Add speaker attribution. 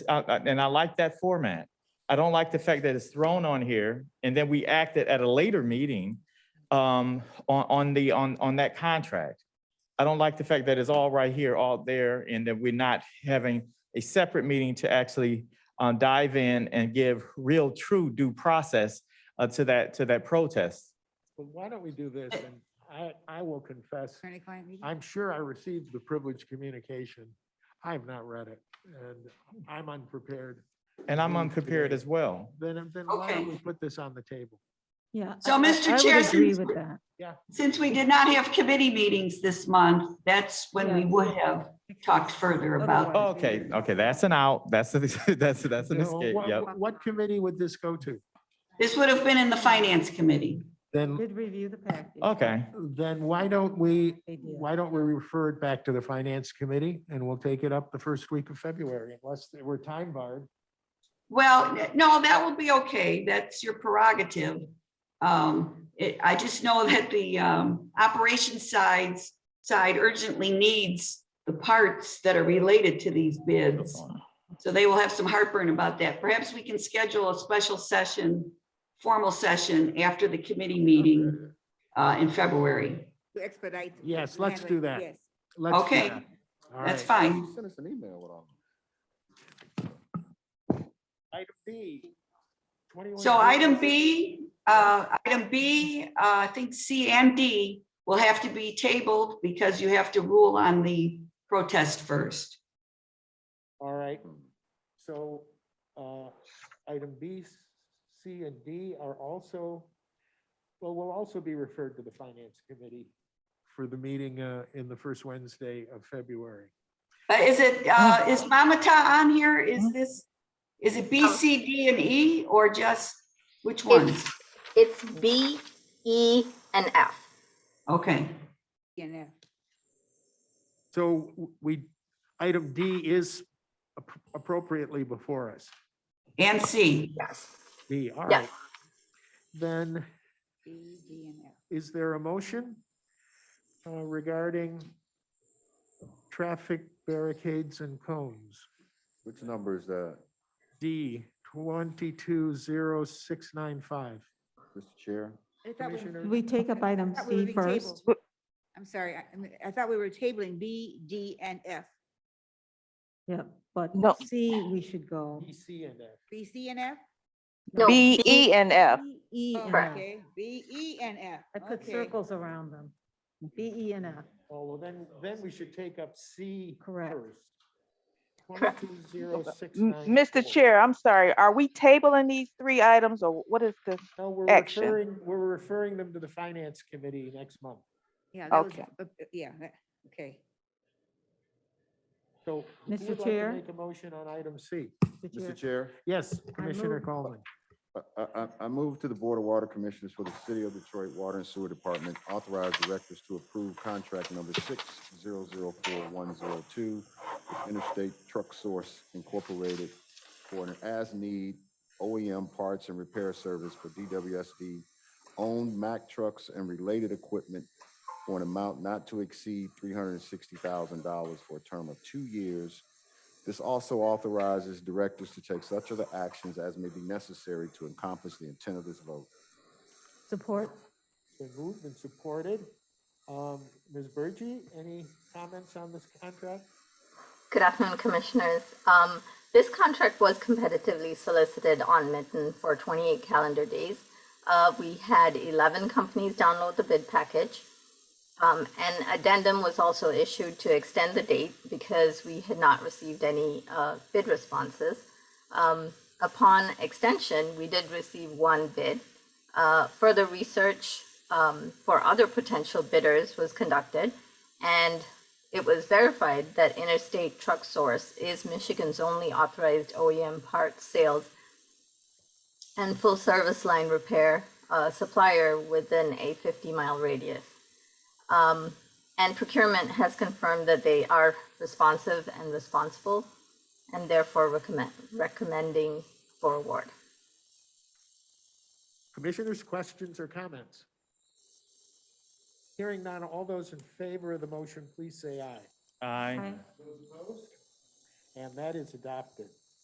Speaker 1: I- I- and I like that format. I don't like the fact that it's thrown on here and then we acted at a later meeting um, on, on the, on, on that contract. I don't like the fact that it's all right here, all there, and that we're not having a separate meeting to actually uh, dive in and give real, true due process uh, to that, to that protest.
Speaker 2: Well, why don't we do this? And I, I will confess,
Speaker 3: Attorney-client meeting?
Speaker 2: I'm sure I received the privileged communication. I have not read it and I'm unprepared.
Speaker 1: And I'm unprepared as well.
Speaker 2: Then, then why
Speaker 4: Okay.
Speaker 2: don't we put this on the table?
Speaker 5: Yeah.
Speaker 4: So,
Speaker 5: I- I-
Speaker 4: Mr.
Speaker 5: I would
Speaker 4: Chair,
Speaker 5: Agree
Speaker 4: since-
Speaker 5: with that.
Speaker 4: Since we did not have committee meetings this month, that's when we
Speaker 5: Yeah.
Speaker 4: would have talked further about.
Speaker 5: Otherwise-
Speaker 1: Okay, okay, that's an out. That's, a- that's, that's an
Speaker 2: No,
Speaker 1: escape.
Speaker 2: what-
Speaker 1: Yep.
Speaker 2: What committee would this go to?
Speaker 4: This would have been in the finance committee.
Speaker 2: Then,
Speaker 5: Did review the package.
Speaker 1: Okay,
Speaker 2: then why don't we,
Speaker 5: They did.
Speaker 2: why don't we refer it back to the finance committee? And we'll take it up the first week of February unless we're time barred.
Speaker 4: Well, no, that will be okay. That's your prerogative. Um, it, I just know that the, um, operations sides, side urgently needs the parts that are related to these bids. So they will have some heartburn about that. Perhaps we can schedule a special session, formal session after the committee meeting, uh, in February.
Speaker 3: To expedite.
Speaker 2: Yes, let's do that.
Speaker 3: Yes.
Speaker 2: Let's do
Speaker 4: Okay,
Speaker 2: that. All
Speaker 4: That's
Speaker 2: right.
Speaker 4: fine.
Speaker 6: Send us an email with all.
Speaker 2: Item B. 21
Speaker 4: So item B, uh, item B, uh, I think C and D will have to be tabled because you have to rule on the protest first.
Speaker 2: All right,
Speaker 6: Hmm.
Speaker 2: so uh, item B, C, and D are also, well, will also be referred to the Finance Committee for the meeting uh, in the first Wednesday of February.
Speaker 4: Uh, is it, uh, is Mamata on here? Is this, is it B, C, D, and E, or just which ones?
Speaker 7: It's B, E, and F.
Speaker 4: Okay,
Speaker 3: Yeah, no.
Speaker 2: So w- we, item D is ap- appropriately before us.
Speaker 4: and C.
Speaker 7: Yes.
Speaker 2: D, all
Speaker 7: Yeah.
Speaker 2: right. Then
Speaker 3: B, G, and F.
Speaker 2: is there a motion uh, regarding traffic barricades and cones?
Speaker 6: Which uh, number is that,
Speaker 2: D twenty-two zero six nine five.
Speaker 6: Mr. Chair?
Speaker 3: I thought we-
Speaker 2: Commissioner?
Speaker 5: Did We take up item
Speaker 3: Thought we were
Speaker 5: C
Speaker 3: being
Speaker 5: first.
Speaker 3: tabled. I'm sorry, I, I mean, I thought we were tabling B, D, and F.
Speaker 5: Yeah, but
Speaker 8: No.
Speaker 5: C, we should go.
Speaker 2: E, C, and F.
Speaker 3: B, C, and F?
Speaker 7: No,
Speaker 8: B, E, and F.
Speaker 5: B, E,
Speaker 3: Oh,
Speaker 5: and F.
Speaker 3: Okay, B, E, and F.
Speaker 5: I put
Speaker 3: Okay.
Speaker 5: circles around them. B, E, and F.
Speaker 2: Oh, well, then, then we should take up C
Speaker 5: Correct.
Speaker 2: first. Twenty-two zero six
Speaker 8: M-
Speaker 2: nine.
Speaker 8: Mr. Chair, I'm sorry, are we tabling these three items or what is this?
Speaker 2: No, we're
Speaker 8: action.
Speaker 2: referring, we're referring them to the finance committee next month.
Speaker 3: Yeah, that was-
Speaker 8: Okay.
Speaker 3: uh, uh, yeah, that- okay.
Speaker 2: So. who
Speaker 5: Mr.
Speaker 2: would like to
Speaker 5: Chair?
Speaker 2: Make a motion on item C.
Speaker 6: Mr. Chair,
Speaker 2: Yes, Commissioner
Speaker 5: move-
Speaker 2: Coleman.
Speaker 6: I- I, I, I move to the Board of Water Commissioners for the City of Detroit Water and Sewer Department, authorize directors to approve contract number six zero zero four one zero two with Interstate Truck Source Incorporated for an as-need OEM parts and repair service for DWSD owned Mack trucks and related equipment for an amount not to exceed three hundred and sixty thousand dollars for a term of two years This also authorizes directors to take such other actions as may be necessary to accomplish the intent of this vote.
Speaker 5: Support?
Speaker 2: Been moved and supported. Um, Ms. Burgey, any comments on this contract?
Speaker 7: Good afternoon, Commissioners. Um, This contract was competitively solicited on Mitten for 28 calendar days. Uh, We had 11 companies download the bid package. Um, An addendum was also issued to extend the date because we had not received any uh, bid responses. Um, Upon extension, we did receive one bid. Uh, Further research um, for other potential bidders was conducted, and it was verified that Interstate Truck Source is Michigan's only authorized OEM parts sales and full service line repair uh, supplier within a 50 mile radius. Um, and procurement has confirmed that they are responsive and responsible and therefore recommend, recommending for award.
Speaker 2: Commissioners, questions or comments? Hearing none, all those in favor of the motion, please say aye.
Speaker 1: Aye.
Speaker 5: Aye.
Speaker 2: Those opposed? And that is adopted.